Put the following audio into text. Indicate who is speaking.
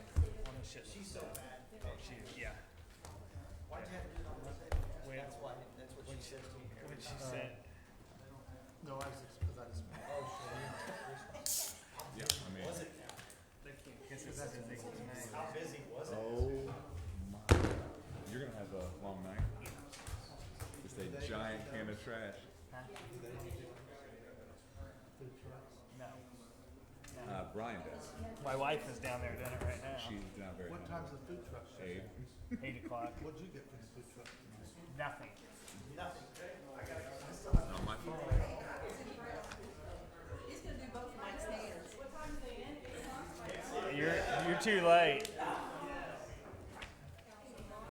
Speaker 1: so bad.
Speaker 2: Oh, she is, yeah.
Speaker 1: Why'd you have to do it on Monday?
Speaker 2: When-
Speaker 1: That's why, that's what she said to me.
Speaker 2: When she said,
Speaker 3: No, I was, because I just,
Speaker 4: Yeah, I mean.
Speaker 1: Was it,
Speaker 3: because that's the thing.
Speaker 1: how busy was it?
Speaker 4: Oh my. You're gonna have a long night. Just a giant can of trash.
Speaker 2: no.
Speaker 4: Uh, Brian does.
Speaker 2: My wife is down there doing it right now.
Speaker 4: She's not very.
Speaker 3: What time's the food truck? shut?
Speaker 4: Abe.
Speaker 2: Eight o'clock.
Speaker 3: What'd you get for the food truck tonight?
Speaker 2: Nothing.
Speaker 1: Nothing.
Speaker 4: Not my fault.
Speaker 5: He's gonna do both Mike's hands.
Speaker 2: You're you're too late.